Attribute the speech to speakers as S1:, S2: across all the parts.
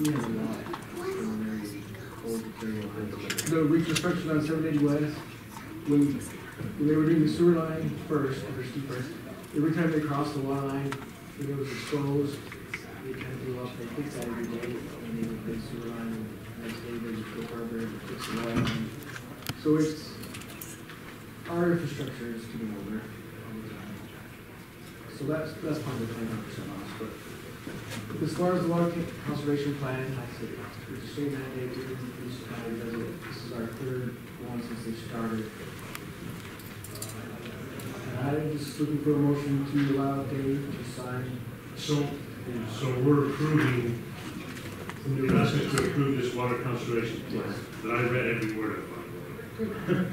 S1: We have a lot from very old material. The reconstruction on seven eighty west, when, when they were doing the sewer line first, under Steve Price, every time they crossed the water line, when it was exposed, they kind of blew up, they fixed that every day, and they would fix sewer line, and next day they would go further and fix the water line. So it's, our infrastructure is getting older all the time. So that's, that's part of the twenty-nine percent loss, but as far as the water con- conservation plan, I said, we're just doing that, they do, this is how it does it. This is our third one since they started. Uh, And I'm just looking for a motion to allow Dave to sign.
S2: So, so we're approving, you're asking to approve this water conservation plan, that I read every word of. by the way.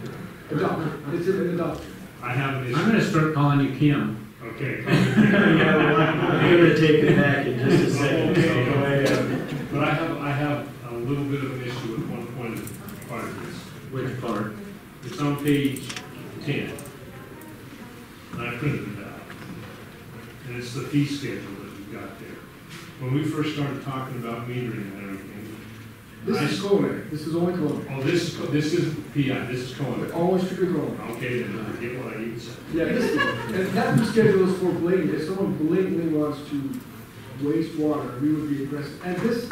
S1: Adopt, it's in adopt.
S2: I have an
S3: I'm
S2: issue,
S3: gonna start calling you Kim.
S2: okay.
S4: Yeah, well, I'm gonna take it back in just a second, so
S2: Okay.
S4: go ahead.
S2: But I have, I have a little bit of an issue with one point of part of this.
S3: Which part?
S2: It's on page ten. And I printed it out. And it's the fee schedule that we've got there. When we first started talking about metering and everything,
S1: This is Coleman, this is only Coleman,
S2: oh, this, this is PI, this is COLA.
S1: always strictly Coleman.
S2: Okay, then I get what I need to say.
S1: Yeah, this, and that schedule is for blatant, if someone blatantly wants to waste water, we would be aggressive. And this,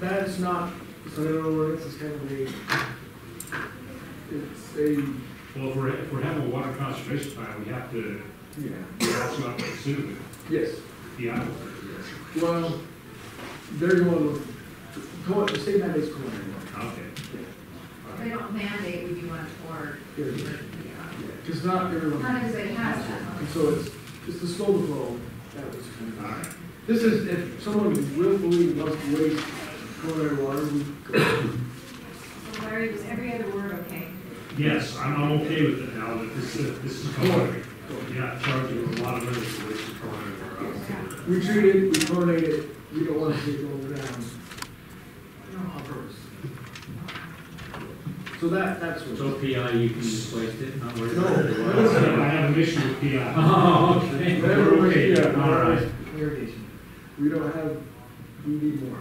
S1: that's not, it's not an ordinance, it's kind of a, it's a,
S2: Well, if we're, if we're having a water conservation plan, we have to,
S1: yeah,
S2: we also have to consider
S1: yes.
S2: the PI.
S1: Well, they're going, co- the state mandates Coleman.
S2: Okay. All
S5: They
S2: right.
S5: don't mandate we do one for,
S1: Yeah,
S5: not
S1: Because not everyone,
S5: as they have
S1: and
S5: that.
S1: so it's, it's the slow flow, that was kind of.
S2: All right.
S1: This is, if someone willfully wants to waste culinary water, we go.
S5: So Larry, was every other word okay?
S2: Yes, I'm, I'm okay with it now, that this is, this is COLA. You're not charging a lot of money for wasting COLA.
S1: We treat it, we coordinate it, we don't want to see it go down
S5: No.
S1: on purpose. So that, that's
S3: So
S1: what.
S3: PI, you can just waste it, not worry about it.
S2: I have an issue with uh, PI.
S3: Oh, okay.
S1: Whatever we-
S2: Okay,
S1: yeah,
S2: all right.
S1: Irrigation. We don't have, we need more.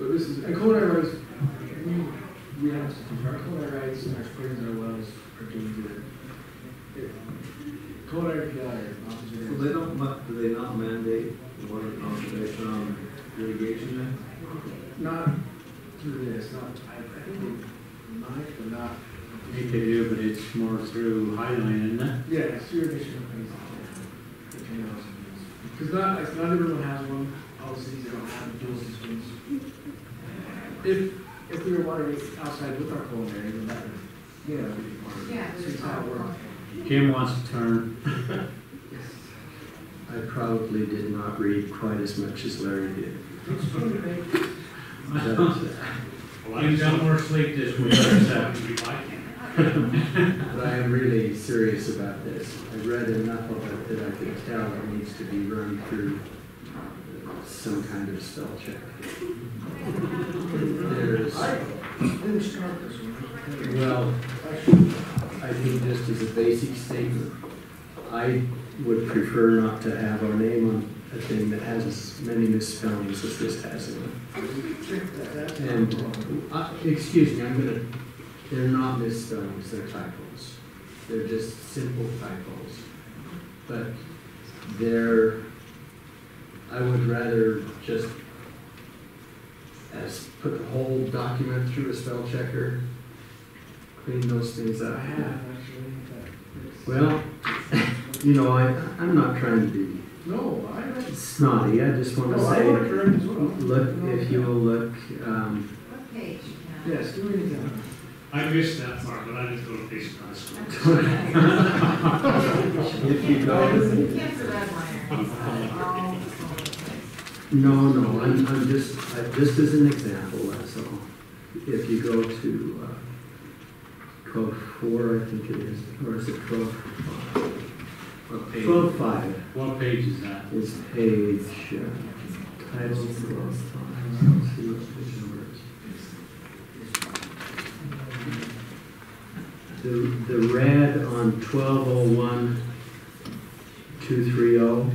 S1: But this is, and culinary rights, we, we have some, our culinary rights and our springs and our wells are doing good. It- Culinary PI is not
S6: Well,
S1: considered.
S6: they don't, ma- do they not mandate water conservation on irrigation then?
S1: Not through this, not, I, I think they might, but not,
S3: I think they do, but it's more through Highland, isn't it?
S1: yeah, sewer district companies. Because not, it's not everyone has one, all the cities don't have dual systems. If, if we were watering it outside with our culinary, then that would, you know, be part of it.
S5: Yeah.
S1: So it's how it works.
S3: Kim wants to turn.
S1: Yes.
S4: I probably did not read quite as much as Larry did. But, uh,
S2: Well, I
S3: You've
S2: just
S3: got
S2: don't work.
S3: more sleep this
S2: We
S3: week,
S2: have
S3: so.
S2: to be like it.
S4: But I am really serious about this. I read enough of it that I can tell it needs to be run through uh, some kind of spell check. There's,
S1: I didn't start this one.
S4: well,
S1: Actually,
S4: I think just as a basic statement, I would prefer not to have our name on a thing that has as many misspellings as this has in it.
S1: check that, that's not
S4: And,
S1: wrong.
S4: uh, excuse me, I'm gonna, they're not misspellings, they're typos. They're just simple typos. But they're, I would rather just as, put the whole document through a spell checker, clean those things
S1: I
S4: up.
S1: have, actually, but.
S4: Well, you know, I, I'm not trying to be
S1: No, I don't.
S4: snotty, Oh, I just wanna
S1: No, I want to
S4: say,
S1: correct as well.
S4: look, if you will look, um,
S5: What page? now?
S1: Yes, do it again.
S2: I missed that part, but I didn't go to Payson High School.
S4: if you go,
S5: Cancer red liner.
S4: No, no, I'm, I'm just, I- just as an example, that's all. If you go to uh, twelve four, I think it is, or is it twelve?
S3: What page-
S4: Twelve five
S3: What page is that?
S4: is page, uh, title twelve five. Let's see what page number it is. The, the red on twelve oh one, two three oh,